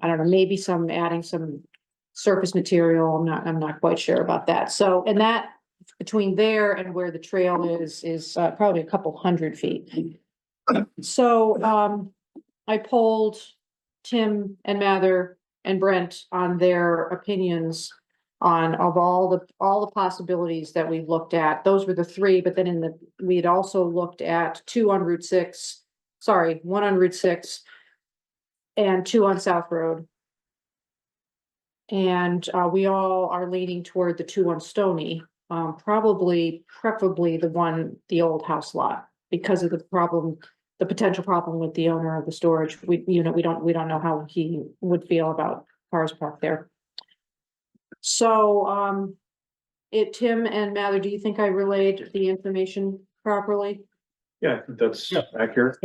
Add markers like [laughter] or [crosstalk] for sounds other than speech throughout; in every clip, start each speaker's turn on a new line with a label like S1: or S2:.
S1: I don't know, maybe some adding some surface material. I'm not, I'm not quite sure about that. So, and that between there and where the trail is, is uh, probably a couple hundred feet. So, um, I polled Tim and Mather and Brent on their opinions on of all the, all the possibilities that we looked at. Those were the three, but then in the, we had also looked at two on Route six, sorry, one on Route six and two on South Road. And, uh, we all are leaning toward the two on Stony, um, probably, preferably the one, the old house lot because of the problem, the potential problem with the owner of the storage. We, you know, we don't, we don't know how he would feel about cars parked there. So, um, it, Tim and Mather, do you think I relayed the information properly?
S2: Yeah, I think that's
S3: Yeah.
S2: accurate.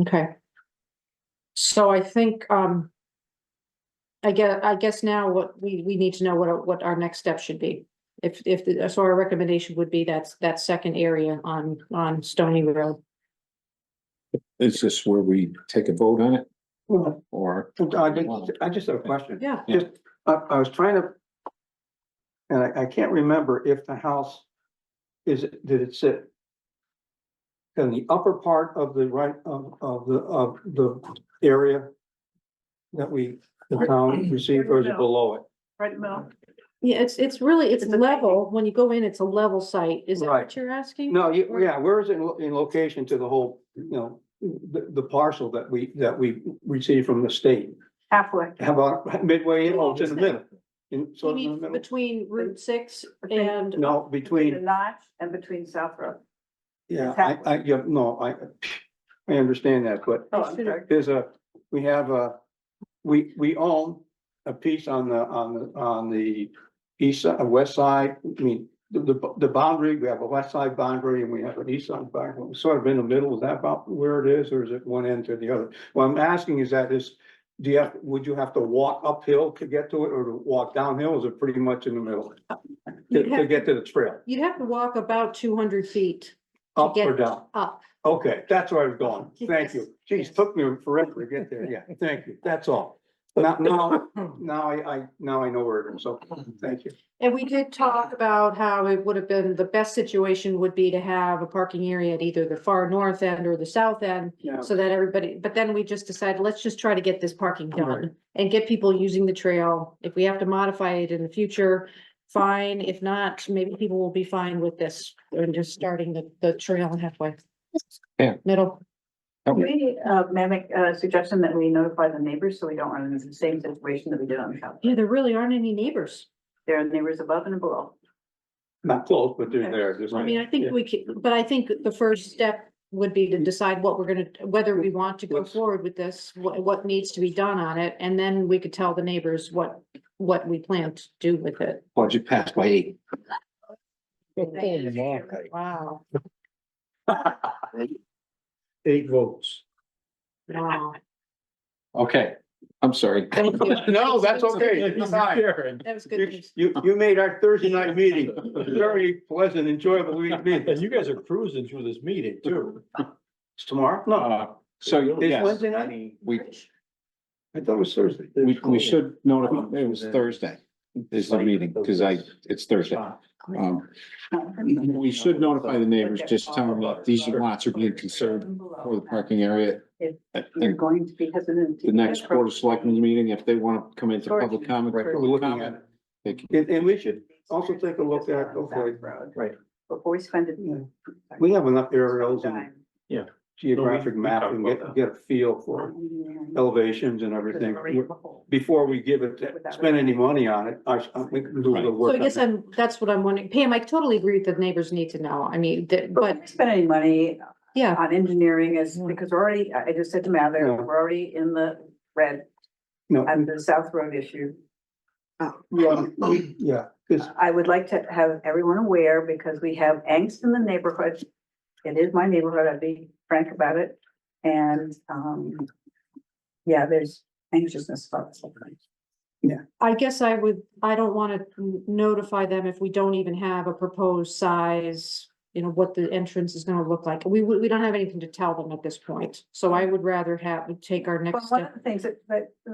S1: Okay. So I think, um, I guess, I guess now what we, we need to know what, our- what our next step should be. If, if, the- so our recommendation would be that's, that second area on, on Stony Road.
S4: Is this where we take a vote on it
S3: Well,
S4: or?
S3: I did, I just have a question.
S1: Yeah.
S4: Yeah.
S3: Just, I, I was trying to. And I, I can't remember if the house is, did it sit? In the upper part of the right, of, of the, of the area? That we, the town received or is it below it?
S5: Right, Mel?
S1: Yeah, it's, it's really, it's
S5: It's a-
S1: level. When you go in, it's a level site. Is that what
S3: Right.
S1: you're asking?
S3: No, you, yeah, where is it in lo- in location to the whole, you know, the, the parcel that we, that we received from the state?
S5: Halfway.
S3: How about midway, in oh, or it's in the middle? In, so
S1: You
S3: it's in the
S1: mean
S3: middle?
S1: between Route six
S5: Between-
S1: and,
S3: No, between.
S5: The notch and between South Road.
S3: Yeah,
S5: Exactly.
S3: I, I, yeah, no, I, I understand that, but
S5: Oh, I'm sorry.
S3: there's a, we have a, we, we own a piece on the, on the, on the east, side, west side, I mean, the, the, the boundary, we have a west side boundary and we have an east side boundary, We're sort of in the middle, is that about where it is, or is it one end to the other? What I'm asking is that is, do you have, would you have to walk uphill to get to it, or to walk downhill, is it pretty much in the middle? To,
S1: You'd
S3: to
S1: have-
S3: get to the trail,
S1: you'd have to walk about two hundred feet
S3: up or
S1: get-
S3: down?
S1: up.
S3: Okay, that's where I
S1: [laughs]
S3: was going. Thank you. Geez,
S1: Yes.
S3: took me forever to get there. Yeah, thank you. That's all.
S1: [laughs]
S3: Now, now, now I, I, now I know where it is. So, thank you.
S1: And we did talk about how it would have been, the best situation would be to have a parking area at either the far north end or the south end.
S3: Yeah.
S1: So that everybody, but then we just decided, let's just try to get this parking
S3: Right.
S1: done and get people using the trail. If we have to modify it in the future, fine. If not, maybe people will be fine with this and just starting the, the trail halfway.
S4: Yeah.
S1: Middle.
S5: Can we, uh, mimic, uh, suggestion that we notify the neighbors so we don't run into the same situation that we did on South.
S1: Yeah, there really aren't any neighbors.
S5: There are neighbors above and below.
S3: Not close, but they're there. Just-
S1: I mean, I think we could, but I think the first step would be to
S3: Mm-hmm.
S1: decide what we're gonna, whether we want to go
S3: Let's-
S1: forward with this, what, what needs to be done on it, and then we could tell the neighbors what, what we plan to do with it.
S4: Budget passed by eight.
S1: Wow,
S3: Eight votes.
S1: wow.
S4: Okay, I'm sorry.
S1: Thank you.
S3: No, that's okay. It's fine.
S2: And
S1: [laughs] That was
S3: You,
S1: good.
S3: you, you made our Thursday night meeting a very pleasant, enjoyable week [laughs] meeting.
S2: you guys are cruising through this meeting too.
S3: It's tomorrow? No,
S4: [laughs] Uh, So,
S3: it's
S4: yes,
S3: Wednesday night?
S4: we,
S3: I thought it was Thursday.
S4: we, we should notify, it was Thursday is the meeting, because I, it's Thursday. Um, we should notify the neighbors, just tell them that these lots are being conserved for the parking area. I
S5: You're
S4: think
S5: going to be hesitant. to-
S4: the next Board of Selectmen's meeting, if they want to come into public comment,
S3: Right, we're
S4: public
S3: looking at
S4: comment.
S3: it. And, and we should also take a look at, okay.
S2: Right.
S5: Before we spend it.
S3: Yeah. We have enough aerials and
S5: Time.
S3: geographic map and get, get a feel for elevations and
S5: Because
S3: everything.
S5: we're already below.
S3: Before we give it, spend any money on it, I, I think we can do a little
S1: So
S3: work.
S1: I guess I'm, that's what I'm wondering. Pam, I totally agree with the neighbors need to know. I mean, that-
S5: But
S1: but,
S5: we spend any money
S1: yeah,
S5: on engineering is
S1: Yeah.
S5: because we're already, I I just said to Mather,
S3: Yeah.
S5: we're already in the red
S3: No,
S5: on the South Road issue.
S3: we- um, yeah, cause,
S5: I would like to have everyone aware because we have angst in the neighborhood. It is my neighborhood, I'd be frank about it. And, um, yeah, there's anxiousness about this. whole thing.
S1: I guess I would, I don't wanna notify them if we don't even have a proposed size, you know, what the entrance is gonna look like. We, we we don't have anything to tell them at this point, so I would rather have, take our
S5: But
S1: next
S5: one of
S1: step.
S5: the things that, that